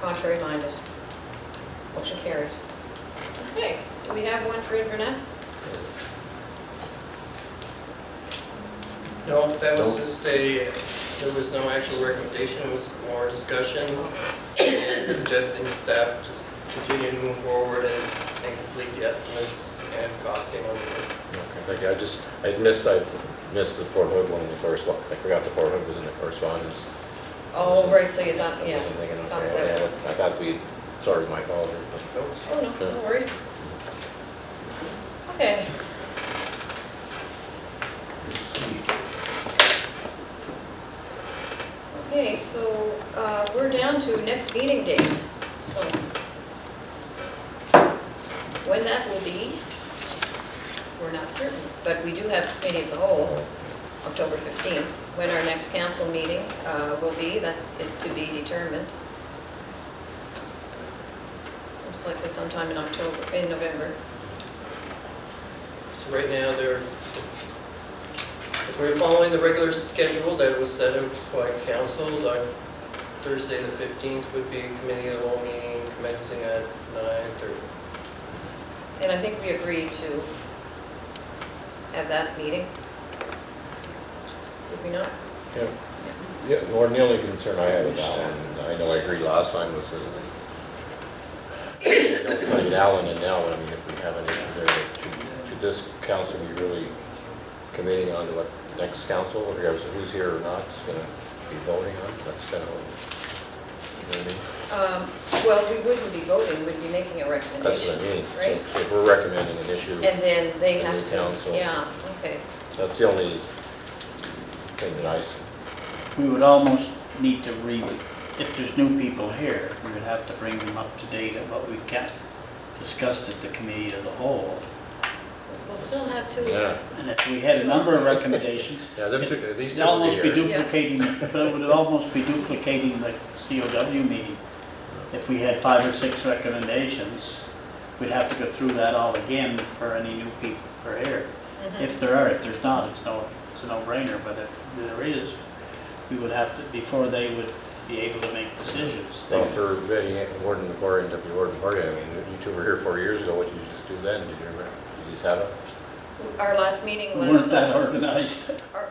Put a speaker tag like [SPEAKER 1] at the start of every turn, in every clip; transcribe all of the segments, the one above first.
[SPEAKER 1] Contrary minded? Motion carries. Okay, do we have one for Inverness?
[SPEAKER 2] No, that was just a, there was no actual recommendation, it was more discussion
[SPEAKER 3] Mm-hmm.
[SPEAKER 2] and suggesting staff to continue to move forward and and complete the estimates and costing on the
[SPEAKER 3] Okay, thank you. I just, I missed, I missed the Port Hood one in the correspondence. I forgot the Port Hood was in the correspondence.
[SPEAKER 1] Oh, right, so you thought,
[SPEAKER 3] I
[SPEAKER 1] yeah.
[SPEAKER 3] wasn't thinking,
[SPEAKER 1] some
[SPEAKER 3] okay,
[SPEAKER 1] that-
[SPEAKER 3] yeah, I thought we, sorry, my fault. but-
[SPEAKER 2] notes.
[SPEAKER 1] Oh, no, no worries. Okay. Okay, so uh, we're down to next meeting date, so when that will be, we're not certain, but we do have committee of the whole, October 15th, when our next council meeting uh, will be, that is to be determined. Most likely sometime in October, in November.
[SPEAKER 2] So right now, they're, if we're following the regular schedule that was set up by council, like Thursday the 15th would be committee of the whole meeting commencing at 9:30.
[SPEAKER 1] And I think we agreed to have that meeting. Did we not?
[SPEAKER 3] Yeah. Yeah, Lauren, the only concern I have with Alan, and I know I agreed last time, was that if we don't find Alan and now, I mean, if we have any there, should- should this council be really committing on to what the next council, regardless of who's here or not, is gonna be voting on? That's kind of, you know what I mean?
[SPEAKER 1] Um, Well, we wouldn't be voting, we'd be making a
[SPEAKER 3] That's
[SPEAKER 1] recommendation,
[SPEAKER 3] what I mean. So
[SPEAKER 1] right?
[SPEAKER 3] If we're recommending an issue,
[SPEAKER 1] And then they
[SPEAKER 3] And the
[SPEAKER 1] have to.
[SPEAKER 3] council.
[SPEAKER 1] Yeah, okay.
[SPEAKER 3] that's the only thing that I s-
[SPEAKER 4] We would almost need to re, if there's new people here, we would have to bring them up to date on what we've got discussed at the committee of the whole.
[SPEAKER 1] We'll still have two.
[SPEAKER 3] Yeah,
[SPEAKER 4] And if we had a number of recommendations,
[SPEAKER 3] yeah, them two, these two will
[SPEAKER 4] it'd
[SPEAKER 3] be
[SPEAKER 4] almost be
[SPEAKER 3] here.
[SPEAKER 1] Yeah.
[SPEAKER 4] duplicating, but it would almost be duplicating the COW meeting. If we had five or six recommendations, we'd have to go through that all again for any new people who are here.
[SPEAKER 1] Mhm.
[SPEAKER 4] If there are, if there's not, it's no, it's a no-brainer, but if there is, we would have to, before they would be able to make decisions. they
[SPEAKER 3] Well,
[SPEAKER 4] would-
[SPEAKER 3] for Betty Ann- Warden McCory and Deputy Warden Party, I mean, you two were here four years ago, what did you just do then? Did you remember, did you just have
[SPEAKER 1] Our last meeting
[SPEAKER 4] We weren't
[SPEAKER 1] was.
[SPEAKER 4] that
[SPEAKER 1] uh,
[SPEAKER 4] organized.
[SPEAKER 1] our-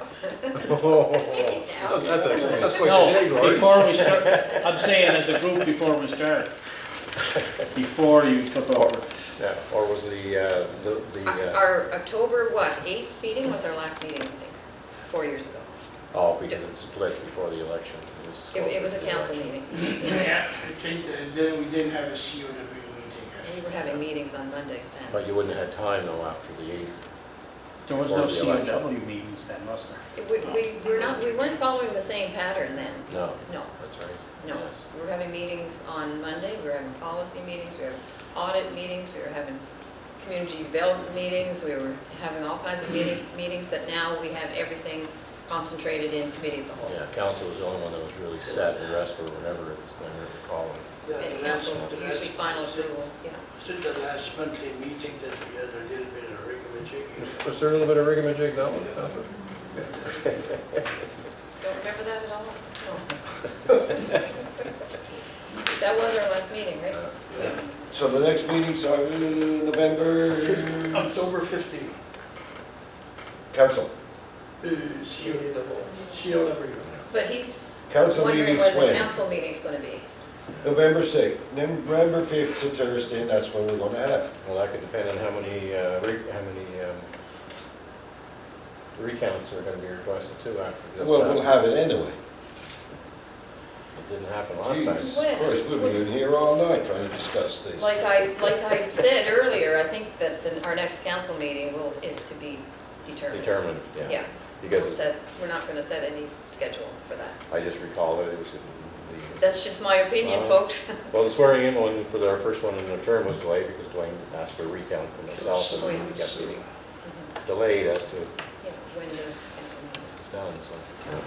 [SPEAKER 3] it? That's a- that's what
[SPEAKER 4] No,
[SPEAKER 3] you did, Lori.
[SPEAKER 4] before we start, I'm saying as a group before we start, before you took over.
[SPEAKER 3] Yeah, or was the, uh, the, the, uh,
[SPEAKER 1] Our October, what, 8th meeting was our last meeting, I think, four years ago.
[SPEAKER 3] oh, because it split before the election. was
[SPEAKER 1] It- It was a
[SPEAKER 3] closer to the
[SPEAKER 1] council
[SPEAKER 3] election.
[SPEAKER 1] meeting.
[SPEAKER 5] Yeah, I think that uh, then we didn't have a COW meeting.
[SPEAKER 1] We were having meetings on Mondays then.
[SPEAKER 3] But you wouldn't have had time though after the eighth.
[SPEAKER 4] There was
[SPEAKER 3] Before
[SPEAKER 4] no
[SPEAKER 3] the election.
[SPEAKER 4] COW meetings then, was there?
[SPEAKER 1] We, we were not, we weren't following the same pattern then.
[SPEAKER 3] No,
[SPEAKER 1] No,
[SPEAKER 3] that's right.
[SPEAKER 1] no.
[SPEAKER 3] Yes.
[SPEAKER 1] We were having meetings on Monday, we were having policy meetings, we were having audit meetings, we were having community development meetings, we were having all kinds of meeting, meetings that now we have everything concentrated in committee of the whole.
[SPEAKER 3] Yeah, council was the only one that was really set, the rest were whatever it's, whatever they call it.
[SPEAKER 1] And council usually final approval, yeah.
[SPEAKER 5] Since the last monthly meeting that we had a little bit of regular checking.
[SPEAKER 3] Was there a little bit of rigmarigic that one?
[SPEAKER 1] Don't remember that at all? No. That was our last meeting, right?
[SPEAKER 3] Uh,
[SPEAKER 6] So the next meeting's on November,
[SPEAKER 5] October 15,
[SPEAKER 6] council,
[SPEAKER 5] uh,
[SPEAKER 2] Committee
[SPEAKER 5] COW,
[SPEAKER 2] of the whole.
[SPEAKER 5] COW.
[SPEAKER 1] But he's
[SPEAKER 6] Council
[SPEAKER 1] wondering
[SPEAKER 6] meeting's
[SPEAKER 1] when the
[SPEAKER 6] when?
[SPEAKER 1] council meeting's gonna be.
[SPEAKER 6] November 6th, November 5th is a Thursday, and that's when we're going to have it.
[SPEAKER 3] Well, that could depend on how many, uh, re- how many um, recounts are going to be requested too after this.
[SPEAKER 6] Well, we'll
[SPEAKER 3] happened.
[SPEAKER 6] have it anyway.
[SPEAKER 3] It didn't happen last time.
[SPEAKER 6] Jeez, Of course, we'll be in here all night trying to discuss this.
[SPEAKER 1] Like I, like I said earlier, I think that the, our next council meeting will, is to be determined.
[SPEAKER 3] Determined, yeah.
[SPEAKER 1] Yeah, we'll
[SPEAKER 3] Because
[SPEAKER 1] set, we're not gonna set any schedule for that.
[SPEAKER 3] I just recall that it was in the,
[SPEAKER 1] That's just my opinion,
[SPEAKER 3] Wow.
[SPEAKER 1] folks.
[SPEAKER 3] well, the swearing in one for our first one in the term was delayed because Dwayne asked for a recount for myself and we kept getting
[SPEAKER 1] Yeah,
[SPEAKER 3] delayed as to it's
[SPEAKER 1] when the council meeting.
[SPEAKER 3] done, so.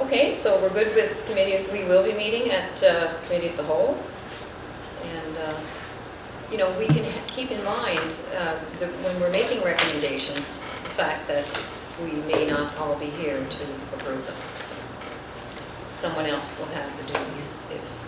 [SPEAKER 1] Okay, so we're good with committee, we will be meeting at uh, Committee of the Whole. And, uh, you know, we can ha- keep in mind uh, that when we're making recommendations, the fact that we may not all be here to approve them, so. someone else will have the duties if